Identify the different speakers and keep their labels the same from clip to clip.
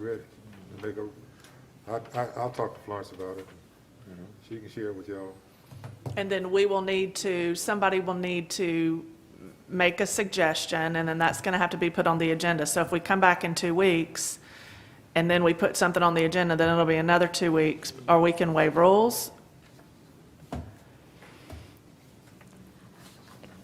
Speaker 1: ready to make a, I, I, I'll talk to Florence about it. She can share it with y'all.
Speaker 2: And then we will need to, somebody will need to make a suggestion, and then that's going to have to be put on the agenda. So if we come back in two weeks, and then we put something on the agenda, then it'll be another two weeks, or we can waive rules.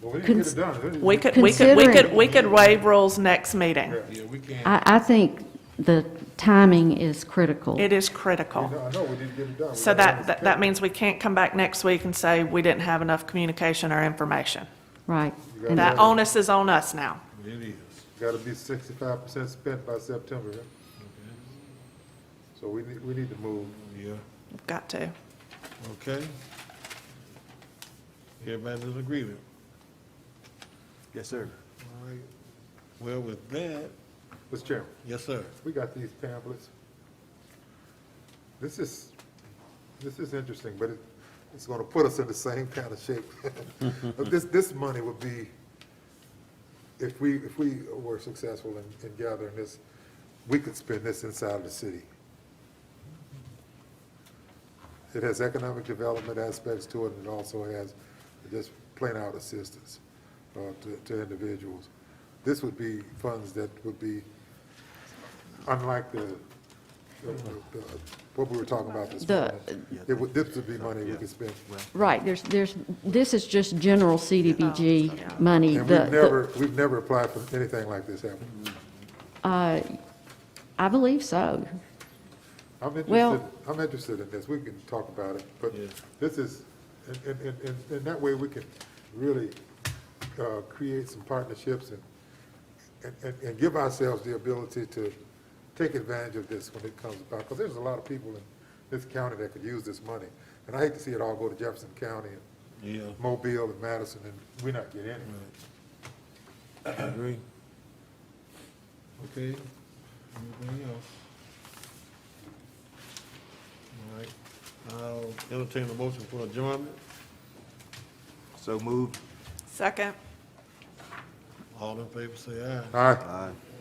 Speaker 1: Well, we didn't get it
Speaker 3: Cons-
Speaker 1: done.
Speaker 2: We could, we could, we could,
Speaker 3: Considering-
Speaker 2: we could waive rules next meeting.
Speaker 1: Yeah.
Speaker 3: I, I think the timing is critical.
Speaker 2: It is
Speaker 1: I
Speaker 2: critical.
Speaker 1: know, we didn't get it done.
Speaker 2: So that, that- that means we can't come back next week and say we didn't have enough communication or information.
Speaker 3: Right.
Speaker 1: You
Speaker 3: And-
Speaker 1: got
Speaker 2: That
Speaker 1: it.
Speaker 2: onus is on us now.
Speaker 4: It is.
Speaker 1: Gotta be sixty-five percent spent by September, huh? So we need, we need to move.
Speaker 4: Yeah,
Speaker 2: We've Got to.
Speaker 4: okay. Everybody's in agreement.
Speaker 5: Yes, sir.
Speaker 4: All right. Well, with that,
Speaker 1: Mr. Chairman,
Speaker 4: yes, sir.
Speaker 1: we got these pamphlets. This is, this is interesting, but it, it's gonna put us in the same kind of shape. But This, this money would be, if we, if we were successful in, in gathering this, we could spend this inside of the city. It has economic development aspects to it, and it also has just plain out assistance uh, to, to individuals. This would be funds that would be, unlike the, the- the- what we were talking about this
Speaker 3: The-
Speaker 1: morning. It would, this would be money we could spend.
Speaker 3: Right, there's, there's, this is just general CDBG money.
Speaker 1: And
Speaker 3: The-
Speaker 1: we've
Speaker 3: the-
Speaker 1: never, we've never applied for anything like this, have we?
Speaker 3: uh, I believe so.
Speaker 1: I'm interested,
Speaker 3: Well-
Speaker 1: I'm interested in this, we can talk about it, but
Speaker 4: Yeah.
Speaker 1: this is, and, and, and- and, and that way we can really, uh, create some partnerships and, and- and, and give ourselves the ability to take advantage of this when it comes about, because there's a lot of people in this county that could use this money. And I hate to see it all go to Jefferson County and
Speaker 4: Yeah,
Speaker 1: Mobile and Madison, and we not get any.
Speaker 4: Mm-hmm. I agree. Okay, anything else? All right, I'll entertain a motion for adjournment.
Speaker 5: So moved.
Speaker 2: Second.
Speaker 4: All in favor, say aye.
Speaker 1: All right.
Speaker 5: Aye.